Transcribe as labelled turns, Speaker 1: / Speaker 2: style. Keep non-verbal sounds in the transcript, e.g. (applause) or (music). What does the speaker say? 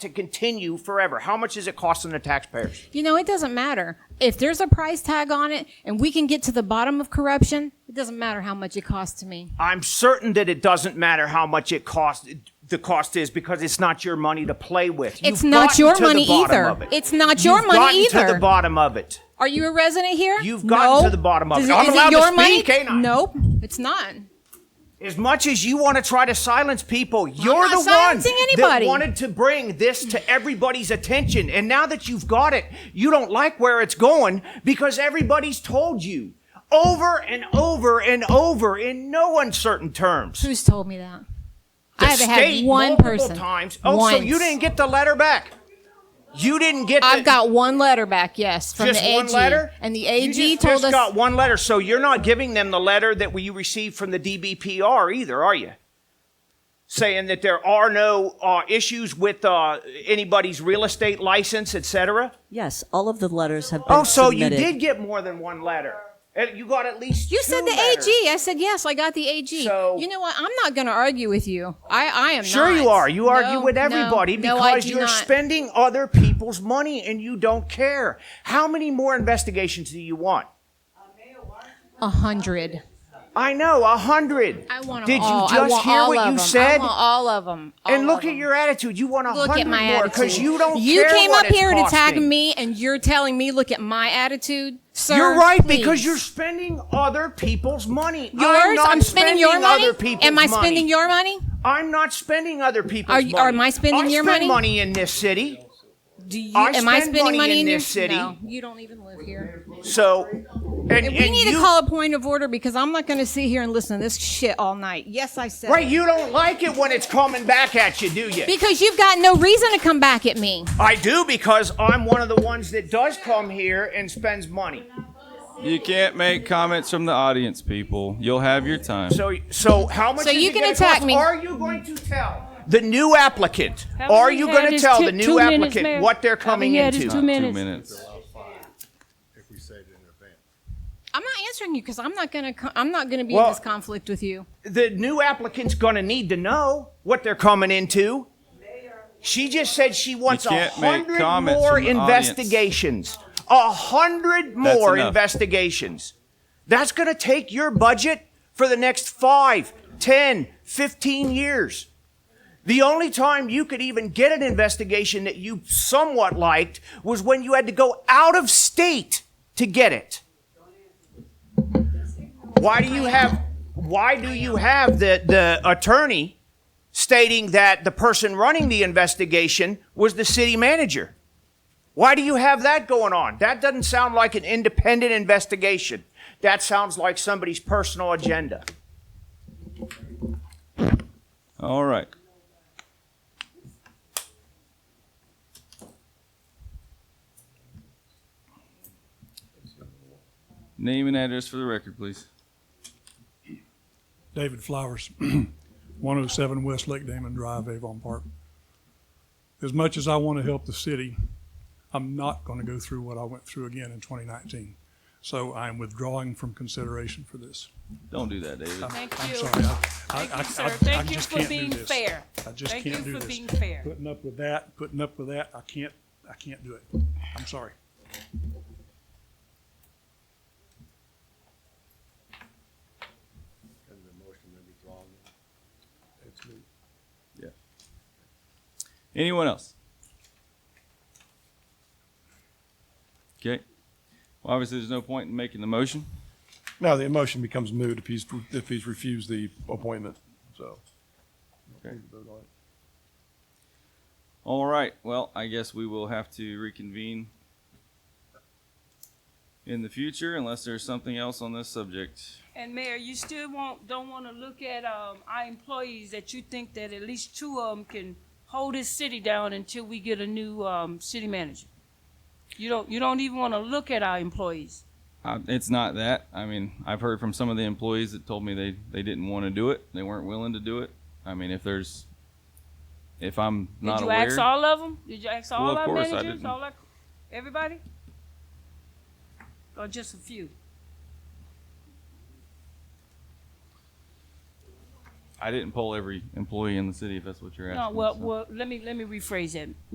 Speaker 1: to continue forever? How much is it costing the taxpayers?
Speaker 2: You know, it doesn't matter. If there's a price tag on it and we can get to the bottom of corruption, it doesn't matter how much it costs to me.
Speaker 1: I'm certain that it doesn't matter how much it cost. The cost is because it's not your money to play with. You've
Speaker 2: It's not
Speaker 1: gotten
Speaker 2: your
Speaker 1: to the
Speaker 2: money
Speaker 1: bottom
Speaker 2: either.
Speaker 1: of it.
Speaker 2: It's not your
Speaker 1: You've
Speaker 2: money
Speaker 1: gotten To
Speaker 2: either.
Speaker 1: the bottom of it.
Speaker 2: Are you a resident here?
Speaker 1: You've gotten
Speaker 2: No.
Speaker 1: to the bottom of
Speaker 2: Does
Speaker 1: it. I'm
Speaker 2: is
Speaker 1: allowed to
Speaker 2: your
Speaker 1: speak,
Speaker 2: money?
Speaker 1: ain't I?
Speaker 2: Nope, it's not.
Speaker 1: As much as you want to try to silence people, you're
Speaker 2: not
Speaker 1: the one
Speaker 2: silencing
Speaker 1: that
Speaker 2: anybody.
Speaker 1: wanted to bring this to everybody's attention. And now that you've got it, you don't like where it's going because everybody's told you over and over and over in no uncertain terms.
Speaker 2: Who's told me that? I
Speaker 1: The
Speaker 2: haven't
Speaker 1: state
Speaker 2: had one
Speaker 1: multiple
Speaker 2: person.
Speaker 1: Times. Oh, so
Speaker 2: Once.
Speaker 1: you didn't get the letter back. You didn't get.
Speaker 2: I've
Speaker 1: the-
Speaker 2: got one letter back, yes, from
Speaker 1: just
Speaker 2: the AG.
Speaker 1: one letter,
Speaker 2: And the
Speaker 1: You
Speaker 2: AG
Speaker 1: just,
Speaker 2: told
Speaker 1: just
Speaker 2: us
Speaker 1: got one letter. So you're not giving them the letter that you received from the DBPR either, are you? Saying that there are no uh, issues with uh, anybody's real estate license, etc.
Speaker 3: Yes, all of the letters have been
Speaker 1: Oh, so
Speaker 3: submitted.
Speaker 1: you did get more than one letter. And You got at least.
Speaker 2: You
Speaker 1: two
Speaker 2: said the
Speaker 1: letters.
Speaker 2: AG. I said yes. I got the AG.
Speaker 1: So-
Speaker 2: you know what? I'm not going to argue with you. I, I am.
Speaker 1: Sure,
Speaker 2: not.
Speaker 1: you are. You argue
Speaker 2: No,
Speaker 1: with
Speaker 2: no,
Speaker 1: everybody
Speaker 2: no, I
Speaker 1: because
Speaker 2: do
Speaker 1: you're
Speaker 2: not.
Speaker 1: spending other people's money and you don't care. How many more investigations do you want?
Speaker 2: a hundred.
Speaker 1: I know, a hundred.
Speaker 2: I want 'em
Speaker 1: Did you
Speaker 2: all. I
Speaker 1: just
Speaker 2: want
Speaker 1: hear
Speaker 2: all
Speaker 1: what
Speaker 2: of
Speaker 1: you
Speaker 2: 'em.
Speaker 1: said?
Speaker 2: I want all of them.
Speaker 1: and look at your attitude. You want a
Speaker 2: Look
Speaker 1: hundred
Speaker 2: at my
Speaker 1: more
Speaker 2: attitude
Speaker 1: because you don't
Speaker 2: You
Speaker 1: care
Speaker 2: came
Speaker 1: what
Speaker 2: up
Speaker 1: it's
Speaker 2: here to tag
Speaker 1: costing.
Speaker 2: me, and you're telling me, look at my attitude, sir.
Speaker 1: You're right
Speaker 2: please.
Speaker 1: because you're spending other people's money.
Speaker 2: yours.
Speaker 1: I'm, not
Speaker 2: spending, your money.
Speaker 1: Other people's
Speaker 2: Am I
Speaker 1: money.
Speaker 2: spending your money?
Speaker 1: I'm not spending other people's
Speaker 2: Are
Speaker 1: money.
Speaker 2: you- are my
Speaker 1: I
Speaker 2: spending your
Speaker 1: spend
Speaker 2: money?
Speaker 1: money in this city?
Speaker 2: Do you?
Speaker 1: I
Speaker 2: am I
Speaker 1: spend
Speaker 2: spending
Speaker 1: money
Speaker 2: money,
Speaker 1: in
Speaker 2: your-
Speaker 1: this city.
Speaker 2: No, you don't even live here.
Speaker 1: So, and,
Speaker 2: we
Speaker 1: and
Speaker 2: need
Speaker 1: you,
Speaker 2: to call a point of order because I'm not going to sit here and listen to this shit all night. Yes, I said.
Speaker 1: Right,
Speaker 2: it.
Speaker 1: you don't like it when it's coming back at you, do you?
Speaker 2: Because you've got no reason to come back at me.
Speaker 1: I do because I'm one of the ones that does come here and spends money.
Speaker 4: You can't make comments from the audience, people. You'll have your time.
Speaker 1: So, so how much?
Speaker 2: So
Speaker 1: is
Speaker 2: you
Speaker 1: it
Speaker 2: can
Speaker 1: gonna
Speaker 2: attack
Speaker 1: cost?
Speaker 2: me.
Speaker 1: Are you going to tell the new applicant?
Speaker 5: How
Speaker 1: Are
Speaker 5: many
Speaker 1: you
Speaker 5: he
Speaker 1: going
Speaker 5: had
Speaker 1: to
Speaker 5: is
Speaker 1: tell
Speaker 5: two-
Speaker 1: the new
Speaker 5: two minutes,
Speaker 1: applicant
Speaker 5: Mayor.
Speaker 1: what they're
Speaker 5: How
Speaker 1: coming
Speaker 5: many he had is
Speaker 1: into?
Speaker 5: two
Speaker 4: Two
Speaker 5: minutes.
Speaker 4: minutes.
Speaker 6: if we say it in advance.
Speaker 2: I'm not answering you because I'm not gonna. co- I'm not gonna be
Speaker 1: Well-
Speaker 2: in this conflict with you.
Speaker 1: the new applicant's going to need to know what they're coming into. She just said she wants a
Speaker 4: can't make
Speaker 1: hundred
Speaker 4: comments
Speaker 1: more
Speaker 4: from the
Speaker 1: investigations. A hundred more
Speaker 4: enough.
Speaker 1: investigations. That's going to take your budget for the next five, ten, fifteen years. The only time you could even get an investigation that you somewhat liked was when you had to go out of state to get it. Why do you have why do you have the, the attorney stating that the person running the investigation was the city manager? Why do you have that going on? That doesn't sound like an independent investigation. That sounds like somebody's personal agenda.
Speaker 4: All right. Name and address for the record, please.
Speaker 7: David Flowers, (clears throat) 107 West Lake Damon Drive, Avon Park. As much as I want to help the city, I'm not going to go through what I went through again in 2019. So I'm withdrawing from consideration for this.
Speaker 4: Don't do that, David.
Speaker 5: Thank
Speaker 7: I'm
Speaker 5: you.
Speaker 7: sorry. I- I-
Speaker 5: Thank
Speaker 7: I-
Speaker 5: you,
Speaker 7: I-
Speaker 5: sir.
Speaker 7: I
Speaker 5: Thank you
Speaker 7: just
Speaker 5: for
Speaker 7: can't do
Speaker 5: being
Speaker 7: this.
Speaker 5: fair.
Speaker 7: I just
Speaker 5: Thank
Speaker 7: can't
Speaker 5: you
Speaker 7: do
Speaker 5: for
Speaker 7: this.
Speaker 5: being fair.
Speaker 7: Putting up with that, putting up with that, I can't, I can't do it. I'm sorry.
Speaker 6: Can the motion be withdrawn? It's moved.
Speaker 4: Yeah. Anyone else? Okay. Well, obviously, there's no point in making the motion.
Speaker 6: No, the motion becomes moot if he's, if he's refused the appointment, so.
Speaker 4: Okay. All right. Well, I guess we will have to reconvene in the future unless there's something else on this subject.
Speaker 5: And Mayor, you still won't, don't want to look at, um, our employees that you think that at least two of them can hold this city down until we get a new, um, city manager? You don't, you don't even want to look at our employees.
Speaker 4: Uh, it's not that. I mean, I've heard from some of the employees that told me they, they didn't want to do it. They weren't willing to do it. I mean, if there's, if I'm not
Speaker 5: Did you
Speaker 4: aware,
Speaker 5: ask all of them? Did you ask all
Speaker 4: Well, of
Speaker 5: our
Speaker 4: course I
Speaker 5: managers,
Speaker 4: didn't.
Speaker 5: all our, everybody? Or just a few?
Speaker 4: I didn't poll every employee in the city. If that's what you're asking.
Speaker 5: No, well,
Speaker 4: so.
Speaker 5: well, let me, let me rephrase that.